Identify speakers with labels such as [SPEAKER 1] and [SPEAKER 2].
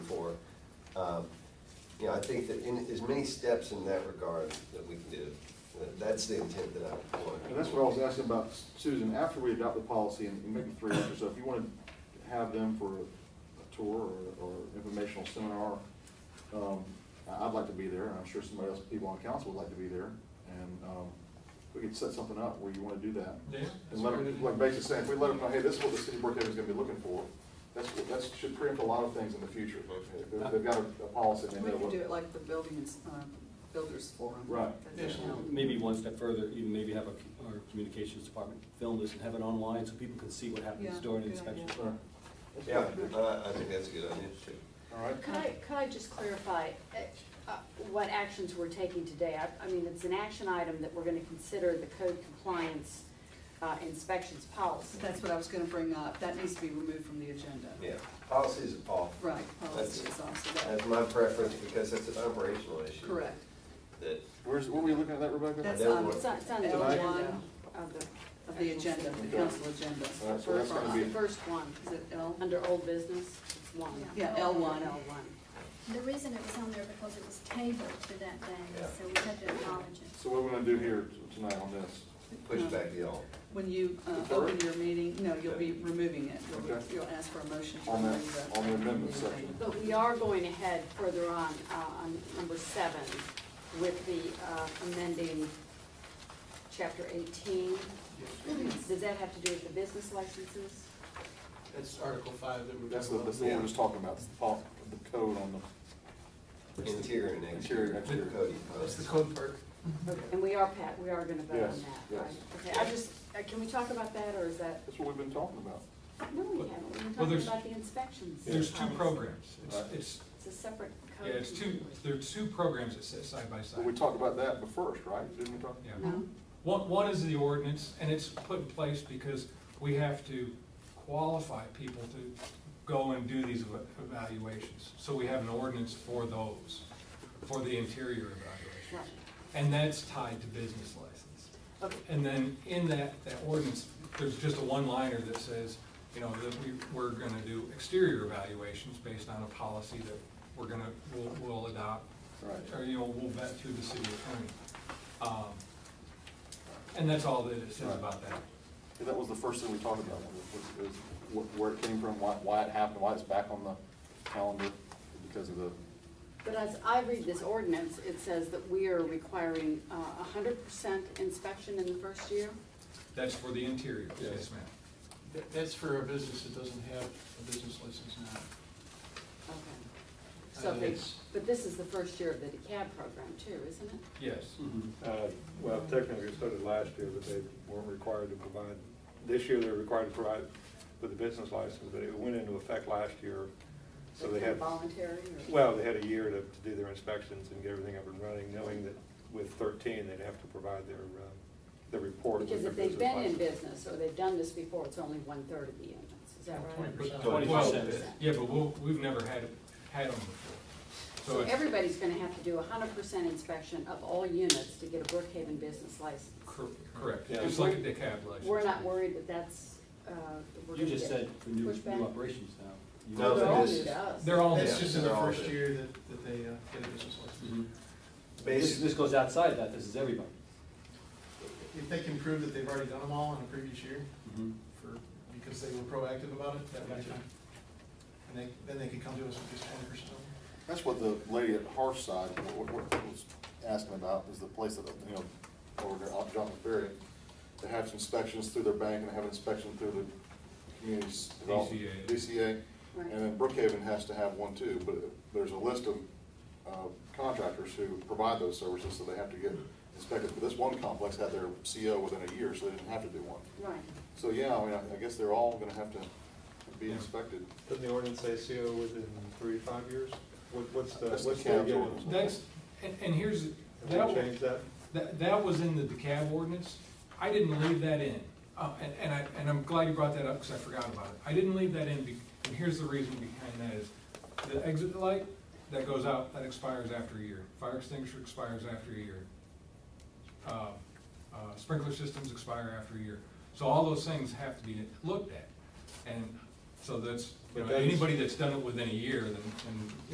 [SPEAKER 1] Um, You know, I think that in, as many steps in that regard that we can do, that- that's the intent that I want.
[SPEAKER 2] And that's what I was asking about, Susan, after we adopt the policy in, in maybe three months or so, if you want to have them for a tour or, or informational seminar, um, I- I'd like to be there, and I'm sure somebody else, people on council would like to be there, and, um, we could set something up where you want to do that.
[SPEAKER 3] Yeah,
[SPEAKER 2] And let them, like Bates is saying, if we let them know, hey, this is what the city of Brookhaven is gonna be looking for, that's, what- that should preempt a lot of things in the future. If they've- they've got a, a policy, they
[SPEAKER 4] We
[SPEAKER 2] know
[SPEAKER 4] can
[SPEAKER 2] what.
[SPEAKER 4] do it like the building, ins- uh, builders forum.
[SPEAKER 2] Right.
[SPEAKER 4] That's how-
[SPEAKER 5] Maybe one step further, even maybe have our- our communications department film this and have it online so people can see what happens
[SPEAKER 4] Yeah,
[SPEAKER 5] during the
[SPEAKER 4] good idea.
[SPEAKER 5] inspection.
[SPEAKER 2] Sure.
[SPEAKER 1] Yeah, I, I think that's a good idea too.
[SPEAKER 2] All right.
[SPEAKER 6] Could I, could I just clarify uh, uh, what actions we're taking today? I, I mean, it's an action item that we're gonna consider the code compliance uh, inspections policy.
[SPEAKER 4] That's what I was gonna bring up, that needs to be removed from the agenda.
[SPEAKER 1] Yeah, policies are off.
[SPEAKER 4] Right, policy
[SPEAKER 1] That's-
[SPEAKER 4] is also that,
[SPEAKER 1] That's my preference because it's an operational issue.
[SPEAKER 4] correct.
[SPEAKER 1] That,
[SPEAKER 2] Where's, what were you looking at that, Rebecca?
[SPEAKER 4] That's um,
[SPEAKER 1] That
[SPEAKER 4] on,
[SPEAKER 1] would-
[SPEAKER 6] It's on, it's on the
[SPEAKER 2] Tonight?
[SPEAKER 6] agenda
[SPEAKER 4] L1
[SPEAKER 6] of the.
[SPEAKER 4] of the agenda, the council agenda.
[SPEAKER 2] All right, so that's gonna
[SPEAKER 6] The
[SPEAKER 2] be-
[SPEAKER 6] first one,
[SPEAKER 4] Is it L?
[SPEAKER 6] under old business, it's one.
[SPEAKER 4] Yeah, L1.
[SPEAKER 6] L one.
[SPEAKER 7] The reason it was on there because it was tabled to that day,
[SPEAKER 1] Yeah.
[SPEAKER 7] so we had to acknowledge it.
[SPEAKER 2] So what we're gonna do here t- tonight on this,
[SPEAKER 1] push back the all.
[SPEAKER 4] When you uh,
[SPEAKER 2] Defer it?
[SPEAKER 4] open your meeting, no, you'll be removing it. You'll-
[SPEAKER 2] Okay.
[SPEAKER 4] You'll ask for a motion to
[SPEAKER 2] On that-
[SPEAKER 4] remove the.
[SPEAKER 2] on the amendment section.
[SPEAKER 6] But we are going ahead further on, uh, on number seven, with the uh, amending chapter eighteen. Does that have to do with the business licenses?
[SPEAKER 3] That's Article Five that we're.
[SPEAKER 2] that's the, that's the one we're just talking about, the pol- the code on the.
[SPEAKER 1] Interior and exterior.
[SPEAKER 2] Interior, exterior.
[SPEAKER 1] Cody,
[SPEAKER 3] That's the code part.
[SPEAKER 6] And we are, Pat, we are gonna vote on
[SPEAKER 2] Yes,
[SPEAKER 6] that, right?
[SPEAKER 2] yes.
[SPEAKER 6] Okay, I just, uh, can we talk about that, or is that,
[SPEAKER 2] That's what we've been talking about.
[SPEAKER 6] no, we haven't, we've been
[SPEAKER 3] Well,
[SPEAKER 6] talking
[SPEAKER 3] there's-
[SPEAKER 6] about the inspections.
[SPEAKER 3] There's two
[SPEAKER 6] policy.
[SPEAKER 3] programs. It's,
[SPEAKER 2] Right.
[SPEAKER 3] it's,
[SPEAKER 6] It's a separate
[SPEAKER 3] yeah,
[SPEAKER 6] code.
[SPEAKER 3] it's two, there's two programs that sit side by
[SPEAKER 2] But we
[SPEAKER 3] side.
[SPEAKER 2] talked about that but first, right? Didn't we talk?
[SPEAKER 3] Yeah.
[SPEAKER 6] No?
[SPEAKER 3] One, one is the ordinance, and it's put in place because we have to qualify people to go and do these eva- evaluations. So we have an ordinance for those, for the interior
[SPEAKER 6] Right.
[SPEAKER 3] evaluations. And that's tied to business license.
[SPEAKER 6] Okay,
[SPEAKER 3] And then in that, that ordinance, there's just a one-liner that says, you know, that we, we're gonna do exterior evaluations based on a policy that we're gonna, we'll, we'll adopt.
[SPEAKER 2] Right.
[SPEAKER 3] Or, you know, we'll vet through the city attorney. Um, And that's all that it says about that.
[SPEAKER 2] Yeah, That was the first thing we talked about, was, was- was wh- where it came from, why, why it happened, why it's back on the calendar because of the,
[SPEAKER 6] But as I read this ordinance, it says that we are requiring uh, a hundred percent inspection in the first year?
[SPEAKER 3] That's for the interior, yes,
[SPEAKER 2] Yes.
[SPEAKER 3] ma'am.
[SPEAKER 8] That- That's for a business that doesn't have a business license now.
[SPEAKER 6] Okay. So
[SPEAKER 8] Uh,
[SPEAKER 6] they,
[SPEAKER 8] it's-
[SPEAKER 6] but this is the first year of the DECAB program too, isn't it?
[SPEAKER 3] Yes.
[SPEAKER 9] Uh, Well, technically, it started last year, but they weren't required to provide, this year they're required to provide with a business license, but it went into effect last year. So they
[SPEAKER 6] It's
[SPEAKER 9] had,
[SPEAKER 6] Voluntary or?
[SPEAKER 9] well, they had a year to, to do their inspections and get everything up and running, knowing that with thirteen, they'd have to provide their, uh, their report. with
[SPEAKER 6] Because
[SPEAKER 9] their
[SPEAKER 6] if they've been in
[SPEAKER 9] license.
[SPEAKER 6] business or they've done this before, it's only one-third of the units, is that right?
[SPEAKER 3] 20%.
[SPEAKER 1] Twenty
[SPEAKER 3] Well,
[SPEAKER 6] percent.
[SPEAKER 3] Oh, Yeah, but we'll, we've never had, had them before. So
[SPEAKER 6] So
[SPEAKER 3] it's-
[SPEAKER 6] everybody's gonna have to do a hundred percent inspection of all units to get a Brookhaven business license.
[SPEAKER 3] cor- correct,
[SPEAKER 9] Yeah.
[SPEAKER 3] just like a DeKalb license.
[SPEAKER 6] We're not worried that that's, uh, we're
[SPEAKER 5] You
[SPEAKER 6] gonna
[SPEAKER 5] just
[SPEAKER 6] get
[SPEAKER 5] said for new, new
[SPEAKER 6] pushback?
[SPEAKER 5] operations now. You-
[SPEAKER 1] No,
[SPEAKER 6] They're all
[SPEAKER 1] this-
[SPEAKER 6] new to us.
[SPEAKER 3] They're all,
[SPEAKER 8] That's
[SPEAKER 1] Yeah,
[SPEAKER 8] just in the
[SPEAKER 1] they're all
[SPEAKER 8] first
[SPEAKER 1] good. Mm-hmm.
[SPEAKER 8] year that, that they uh, get a business license.
[SPEAKER 5] Mhm. This,
[SPEAKER 1] Basically,
[SPEAKER 5] this goes outside that, this is everybody.
[SPEAKER 8] If they can prove that they've already done them all in a previous year
[SPEAKER 5] Mhm.
[SPEAKER 8] for, because they were proactive about it, that would be fine. And they, then they could come to us with just twenty percent.
[SPEAKER 2] that's what the lady at Hearthside, what, what what was asking about, is the place that, you know, over there, off John Ferry, they have inspections through their bank and they have inspection through the community's development.
[SPEAKER 3] DCA.
[SPEAKER 2] DCA.
[SPEAKER 6] Right.
[SPEAKER 2] And then Brookhaven has to have one too, but there's a list of uh, contractors who provide those services, so they have to get inspected. But this one complex had their CO within a year, so they didn't have to do one.
[SPEAKER 6] Right,
[SPEAKER 2] So, yeah, I mean, I I guess they're all gonna have to be inspected.
[SPEAKER 9] Doesn't the ordinance say CO within three, to five years? What, what's the,
[SPEAKER 2] That's the
[SPEAKER 9] what's the?
[SPEAKER 2] CAB's
[SPEAKER 9] beginning?
[SPEAKER 2] ordinance.
[SPEAKER 3] that's, and, and here's, that
[SPEAKER 9] Have we
[SPEAKER 3] was,
[SPEAKER 9] changed that?
[SPEAKER 3] That, that was in the DeKalb ordinance. I didn't leave that in. Uh, and, and I, and I'm glad you brought that up because I forgot about it. I didn't leave that in be, and here's the reason behind that is the exit light that goes out, that expires after a year. Fire extinguisher expires after a year. Uh, uh, Sprinkler systems expire after a year. So all those things have to be looked at. And so that's, you
[SPEAKER 9] But
[SPEAKER 3] know,
[SPEAKER 9] that's-
[SPEAKER 3] anybody that's done it within a year, then, then